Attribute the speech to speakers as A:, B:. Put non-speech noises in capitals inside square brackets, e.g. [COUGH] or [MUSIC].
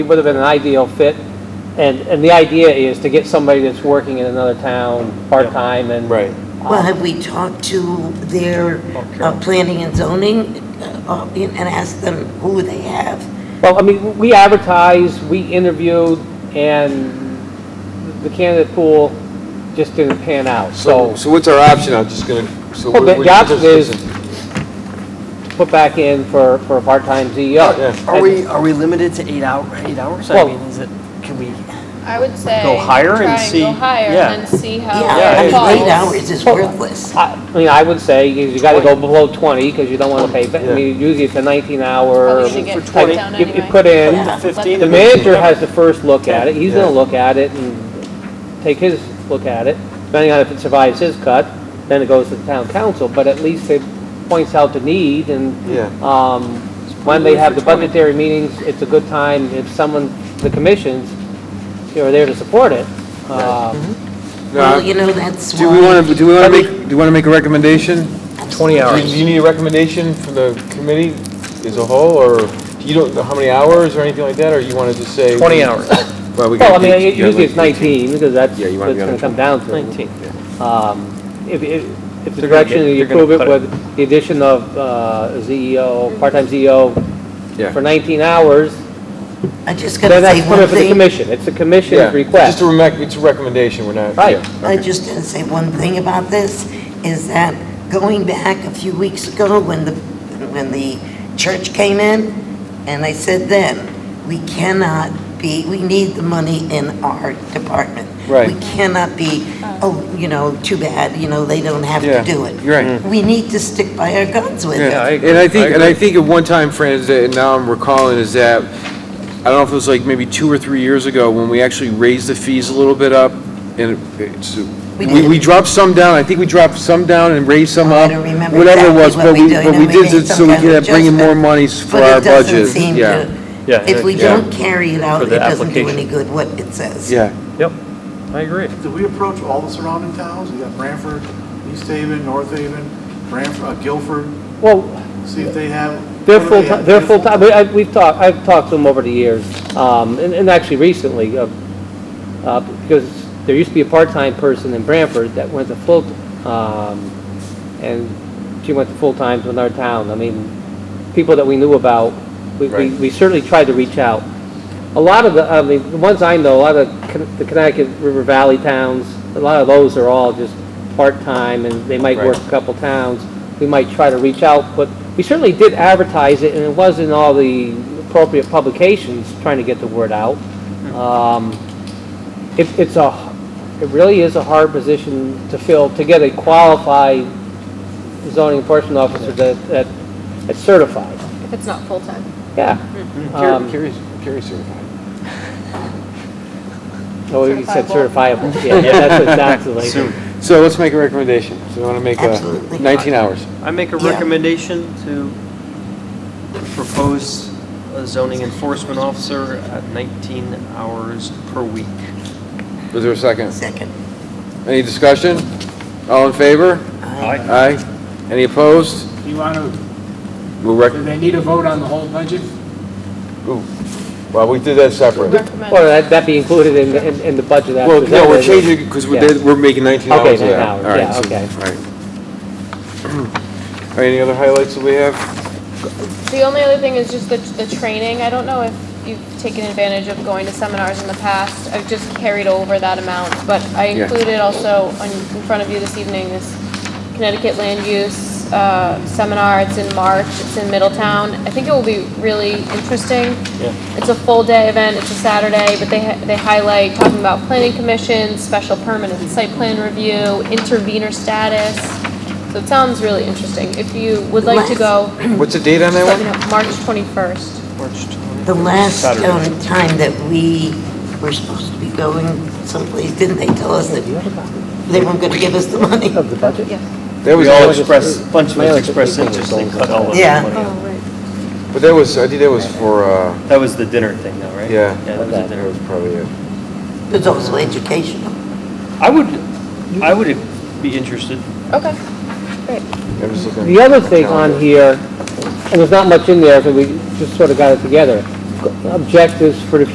A: It would have been an ideal fit, and, and the idea is to get somebody that's working in another town, part-time, and.
B: Right.
C: Well, have we talked to their uh, planning and zoning uh, uh, and asked them who they have?
A: Well, I mean, we advertised, we interviewed, and the candidate pool just didn't pan out,
B: So,
A: so
B: so what's our option? I'm just gonna, so.
A: Well,
B: what-
A: the
B: what-
A: option is-
B: listen,
A: put back in for, for a part-time
B: Oh,
A: E
B: Yeah.
A: CEO.
D: Are we, are we limited to eight hour, eight hours? I
A: Well-
D: mean, is it, can we,
E: I would say.
D: Go higher and see-
E: Try and go higher
D: yeah.
E: and then see how
C: Yeah, I
E: it
C: mean, eight
E: falls.
C: hours is worthless.
A: I I mean, I would say you you gotta go below 20, because you don't want to pay, ba- I mean, usually it's a 19-hour.
E: Probably should get cut down
A: You you
E: anyway.
A: put in.
C: Yeah.
D: fifteen?
A: The manager has the first look at it, he's
B: Yeah.
A: gonna look at it and take his look at it, depending on if it survives his cut, then it goes to the town council, but at least it points out the need and,
B: Yeah.
A: um, when they have the budgetary meetings, it's a good time if someone, the commissions, you know, are there to support it. Uh,
B: Mm-hmm.
C: Well,
B: no,
C: you know, that's
B: Do we want
C: why,
B: to, do we want to make, do you want to make a recommendation?
D: Twenty
B: Do you- do you need a recommendation from the committee as a whole, or you don't, know how many hours or anything like that, or you want to just say?
D: hours.
B: Well, we
A: Well, I
B: gotta
A: mean,
B: think-
A: it-
B: yeah,
A: usually
B: like
A: it's 19, because that's,
B: Yeah,
A: that's
B: you wanna be on
A: gonna
B: the
A: come down to.
D: 19.
A: Um, If, if, if the
D: They're gonna
A: direction
D: get-
A: that you
D: they're gonna
A: approve it
D: cut it.
A: with the addition of uh, CEO, part-time CEO
B: Yeah.
A: for 19 hours,
C: I just
A: then
C: gotta say
A: that's put
C: one
A: it for the
C: thing.
A: commission. It's the
B: Yeah,
A: commission's
B: Just
A: request.
B: a rec, it's a recommendation, we're not.
A: Right.
B: yeah,
C: I
B: okay.
C: just gotta say one thing about this, is that going back a few weeks ago when the, when the church came in, and I said then, we cannot be, we need the money in our department.
B: Right.
C: We cannot be, oh, you know, too bad, you know, they don't have
B: Yeah,
C: to do it.
B: you're right.
C: We need to stick by our guns with
B: Yeah,
C: it.
B: and I think, and I think at one time, Fran, is that, and now I'm recalling, is that, I don't know if it was like maybe two or three years ago, when we actually raised the fees a little bit up, and it's,
C: We
B: we, we
C: did.
B: dropped some down, I think we dropped some down and raised some
C: Oh, I
B: up.
C: don't remember
B: Whatever it
C: exactly
B: was,
C: what
B: but
C: we
B: we,
C: did,
B: but
C: and
B: we
C: we
B: did
C: made
B: it so
C: some
B: we
C: kind
B: could
C: of
B: have bringing more
C: adjustment.
B: monies for
C: But
B: our
C: it doesn't
B: budget,
C: seem
B: yeah,
C: to,
F: Yeah,
C: if we
F: yeah.
C: don't carry it out,
F: For
C: it
F: the
C: doesn't do
F: application.
C: any good what it says.
B: yeah.
F: Yep, I agree.
G: Did we approach all the surrounding towns? We got Branford, East Haven, North Haven, Branford, uh, Guilford,
A: Well,
G: see if they have.
A: they're
G: what do they
A: full,
G: have?
A: they're full-time, we, I- we've talked, I've talked to them over the years, um, and, and actually recently, uh, uh, because there used to be a part-time person in Branford that went to full, um, and she went to full-time to another town. I mean, people that we knew about, we, we
B: Right.
A: we certainly tried to reach out. A lot of the, I mean, the ones I know, a lot of Con- the Connecticut River Valley towns, a lot of those are all just part-time, and they might work
B: Right.
A: a couple towns. We might try to reach out, but we certainly did advertise it, and it was in all the appropriate publications, trying to get the word out. Um, it, it's a, it really is a hard position to fill, to get a qualified zoning enforcement officer that, that, that's certified,
E: If it's not full-time.
A: yeah. Um,
B: Curious, curious certified.
A: Oh, you said
E: Certifiable.
A: certifiable, yeah, that's what it sounds
B: [LAUGHS]
A: like.
B: So let's make a recommendation, so we want to make
C: Absolutely.
B: a, 19 hours.
D: I make a
C: Yeah.
D: recommendation to propose a zoning enforcement officer at nineteen hours per week.
B: Is there a second?
C: Second.
B: Any discussion? All in favor?
C: Aye.
B: Aye. Any opposed?
H: You want to,
B: We'll
H: do
B: rec,
H: they need a vote on the whole budget?
B: well, we did that separate.
E: Recommend.
A: Or that, that be included in, the- in, in the budget as
B: Well, no, we're
A: presented.
B: changing, because we're,
A: Yeah.
B: did- we're making 19
A: Okay,
B: hours of
A: 19
B: that.
A: hours,
B: All right,
A: yeah,
B: so-
A: okay.
B: All right. [CLEARS THROAT] All right, any other highlights that we have?
E: The only other thing is just the, the training. I don't know if you've taken advantage of going to seminars in the past. I've just carried over that amount, but I
B: Yeah.
E: included also on, in front of you this evening, this Connecticut Land Use, uh, seminar. It's in March. It's in Middletown. I think it will be really interesting. It's a full day event. It's a Saturday, but they, ha- they highlight talking about planning commissions, special permanent site plan review, intervenor status. So it sounds really interesting. If you would like to go,
B: What's the date on that
E: let
B: one?
E: me know, March 21st.
D: March 20
C: The last
D: Saturday.
C: um, time that we were supposed to be going someplace, didn't they tell us that they weren't going to give us the money?
A: Of the budget?
B: That
D: We
B: was,
D: all
B: that was-
D: express, a bunch of us expressed interest in cut all of the
C: Yeah.
D: money. out.
B: but that was, I think that was for, uh,
D: That was the dinner thing though, right?
B: Yeah.
D: Yeah, that was the dinner.
B: that was probably it.
C: It's also educational.
D: I would, I would be interested.
E: Okay, great.
B: I was looking at
A: The other thing
B: calendar.
A: on here, and there's not much in there, so we just sort of got it together, objectives for the